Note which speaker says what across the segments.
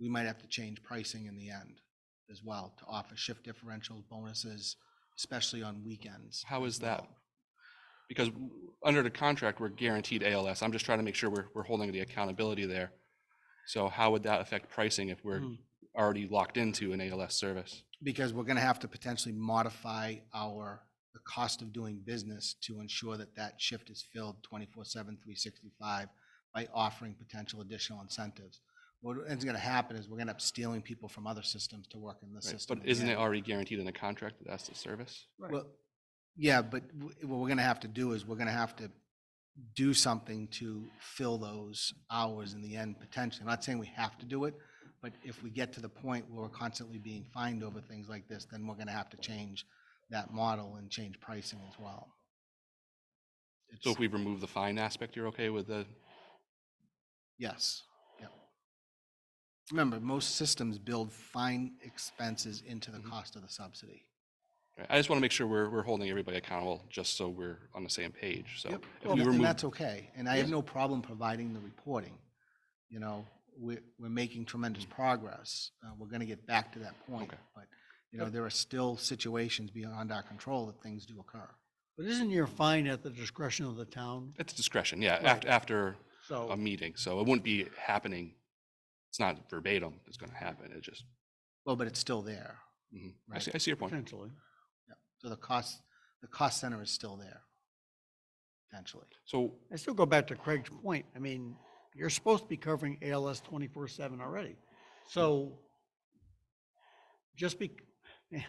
Speaker 1: we might have to change pricing in the end as well to offer shift differentials, bonuses, especially on weekends. um,
Speaker 2: How
Speaker 1: as
Speaker 2: is that?
Speaker 1: well.
Speaker 2: Because w- under the contract, we're guaranteed ALS. I'm just trying to make sure we're, we're holding the accountability there. So how would that affect pricing if we're
Speaker 1: Mhm.
Speaker 2: already locked into an ALS service?
Speaker 1: Because we're gonna have to potentially modify our, the cost of doing business to ensure that that shift is filled 24/7, 365 by offering potential additional incentives. What ends gonna happen is we're gonna end up stealing people from other systems to work in this
Speaker 2: right?
Speaker 1: system.
Speaker 2: But isn't
Speaker 1: again.
Speaker 2: it already guaranteed in the contract that that's the service?
Speaker 1: Well, yeah, but w- what we're gonna have to do is we're gonna have to do something to fill those hours in the end potentially. I'm not saying we have to do it, but if we get to the point where we're constantly being fined over things like this, then we're gonna have to change that model and change pricing as well.
Speaker 2: So if
Speaker 1: It's-
Speaker 2: we remove the fine aspect, you're okay with the,
Speaker 1: Yes, yep. Remember, most systems build fine expenses into the
Speaker 2: Mhm.
Speaker 1: cost of the subsidy.
Speaker 2: I just want to make sure we're, we're holding everybody accountable, just so we're on the same page. So
Speaker 1: Yep,
Speaker 2: if
Speaker 1: and
Speaker 2: we
Speaker 1: tha- and
Speaker 2: remove,
Speaker 1: that's okay, and I have
Speaker 2: Yes.
Speaker 1: no problem providing the reporting. You know, we're, we're making tremendous progress, uh, we're gonna get back to that point,
Speaker 2: Mm. Okay.
Speaker 1: but, you know, there are still situations beyond our control that things do occur.
Speaker 3: But isn't your fine at the discretion of the town?
Speaker 2: it's discretion, yeah,
Speaker 3: Right.
Speaker 2: after, after
Speaker 3: So,
Speaker 2: a meeting. So it wouldn't be happening. It's not verbatim, it's going to happen. It just,
Speaker 1: Well, but it's still there,
Speaker 2: mhm. I
Speaker 1: Right.
Speaker 2: see, I see your point.
Speaker 3: potentially.
Speaker 1: so the cost, the cost center is still there, potentially.
Speaker 2: So
Speaker 3: I still go back to Craig's point. I mean, you're supposed to be covering ALS twenty-four seven already. So just be, man,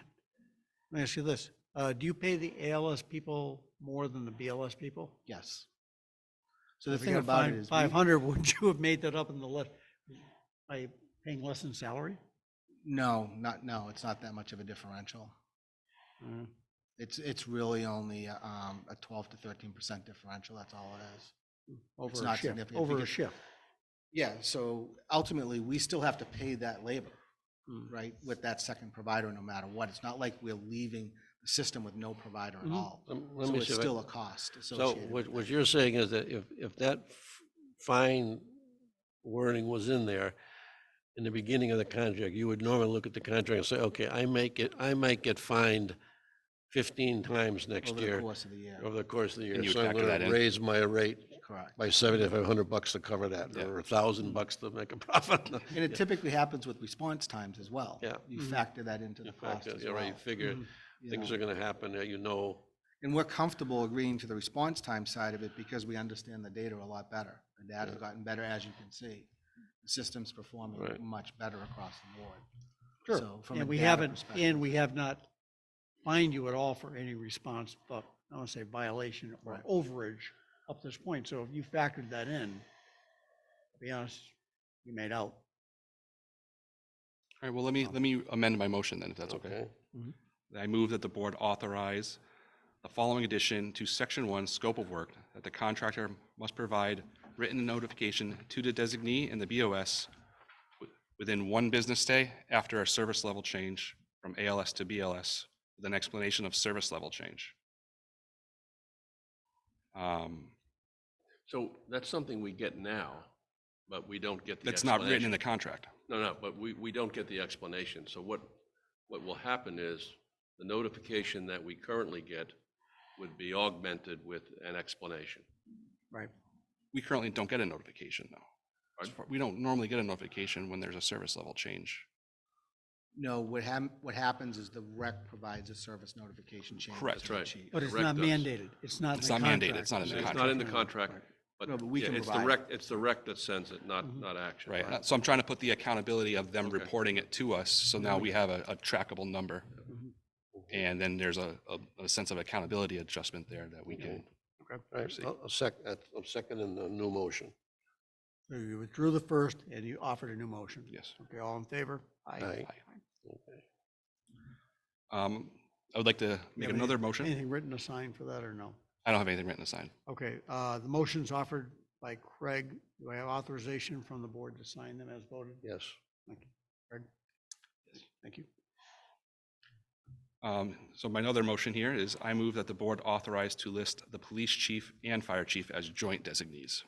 Speaker 3: let me ask you this. Uh, do you pay the ALS people more than the BLS people?
Speaker 1: Yes. So the thing about it is, we-
Speaker 3: Five hundred, would you have made that up in the left, by paying less in salary?
Speaker 1: no, not, no, it's not that much of a differential.
Speaker 3: Uh,
Speaker 1: It's, it's really only, um, a twelve to thirteen percent differential, that's all it is.
Speaker 3: Over a
Speaker 1: not
Speaker 3: shift,
Speaker 1: significant
Speaker 3: over a
Speaker 1: because-
Speaker 3: shift.
Speaker 1: Yeah, so ultimately, we still have to pay that labor,
Speaker 3: Mm.
Speaker 1: right, with that second provider, no matter what. It's not like we're leaving the system with no provider at
Speaker 3: Mhm.
Speaker 1: all.
Speaker 4: Lem- Mm-hmm. Let
Speaker 1: So
Speaker 4: me
Speaker 1: it's
Speaker 4: see. if I-
Speaker 1: still a cost
Speaker 4: So
Speaker 1: associated
Speaker 4: what,
Speaker 1: with
Speaker 4: what
Speaker 1: it.
Speaker 4: you're saying is that if, if that f- fine wording was in there in the beginning of the contract, you would normally look at the contract and say, okay, I make it, I might get fined fifteen times next
Speaker 1: Over the
Speaker 4: year
Speaker 1: course of the year,
Speaker 4: over the course of the
Speaker 2: you
Speaker 4: year.
Speaker 2: would
Speaker 4: So I'm
Speaker 2: factor that
Speaker 4: gonna
Speaker 2: in.
Speaker 4: raise my rate
Speaker 1: correct.
Speaker 4: by seventy-five hundred bucks to cover that,
Speaker 2: Yeah.
Speaker 4: or a thousand bucks to make a profit.
Speaker 1: And it typically happens with response times as well.
Speaker 4: Yeah.
Speaker 1: You
Speaker 3: Mhm.
Speaker 1: factor that into the
Speaker 4: In
Speaker 1: cost
Speaker 4: fact,
Speaker 1: as
Speaker 4: you
Speaker 1: well. Mm-hmm.
Speaker 4: already figure
Speaker 3: Mhm.
Speaker 1: you
Speaker 4: things
Speaker 1: know.
Speaker 4: are gonna happen, that you know.
Speaker 1: And we're comfortable agreeing to the response time side of it because we understand the data a lot better. The data's
Speaker 4: Yeah.
Speaker 1: gotten better, as you can see. The system's performing
Speaker 4: Right.
Speaker 1: much better across the board.
Speaker 3: Sure.
Speaker 1: So from a
Speaker 3: And we
Speaker 1: data
Speaker 3: haven't,
Speaker 1: perspective-
Speaker 3: and we have not fined you at all for any response, but I want to say violation or
Speaker 1: Right.
Speaker 3: overage up this point. So if you factored that in, to be honest, you made out.
Speaker 2: All right, well, let me, let me amend my motion then, if that's okay. I move that the board authorize the following addition to section one, scope of work, that the contractor must provide written notification to the designee and the BOS wi- within one business day after a service level change from ALS to BLS, with an explanation of service level change. Um,
Speaker 4: So that's something we get now, but we don't get the.
Speaker 2: That's not written in
Speaker 4: explanation.
Speaker 2: the contract.
Speaker 4: No, no, but we, we don't get the explanation. So what, what will happen is the notification that we currently get would be augmented with an explanation.
Speaker 3: Right.
Speaker 2: We currently don't get a notification, though. As far- We don't normally get a notification when there's a service level change.
Speaker 1: No, what hap, what happens is the rec provides a service notification change.
Speaker 2: Correct.
Speaker 1: to the
Speaker 4: That's
Speaker 1: chief.
Speaker 3: But it's not
Speaker 4: Correct us.
Speaker 3: mandated. It's not in
Speaker 2: It's
Speaker 3: the
Speaker 2: not mandated.
Speaker 3: contract.
Speaker 2: It's not in the
Speaker 4: It's not in the
Speaker 3: Contract.
Speaker 4: contract, but
Speaker 1: No, but we
Speaker 4: yeah,
Speaker 1: can
Speaker 4: it's the
Speaker 1: provide Mm-hmm.
Speaker 4: rec, it's the rec that sends it, not, not action.
Speaker 2: Right, uh, so I'm trying to put the accountability of them
Speaker 4: Okay.
Speaker 2: reporting it to us, so now
Speaker 3: Mm-hmm.
Speaker 2: we have a, a trackable number.
Speaker 3: Mhm.
Speaker 2: And then there's a, a, a sense of accountability adjustment there that we can, Proceed.
Speaker 4: I'll second, I'm seconding the new motion.
Speaker 3: So you withdrew the first and you offered a new motion.
Speaker 2: yes.
Speaker 3: Okay, all in favor?
Speaker 4: Aye.
Speaker 2: Um, I would like to make
Speaker 3: Have
Speaker 2: another
Speaker 3: any-
Speaker 2: motion.
Speaker 3: Anything written assigned for that or no?
Speaker 2: I don't have anything written aside.
Speaker 3: Okay, uh, the motion's offered by Craig. Do I have authorization from the board to sign them as voted?
Speaker 4: Yes.
Speaker 3: Thank you.
Speaker 2: Um, so my other motion here is I move that the board authorize to list the police chief and fire chief as joint designees.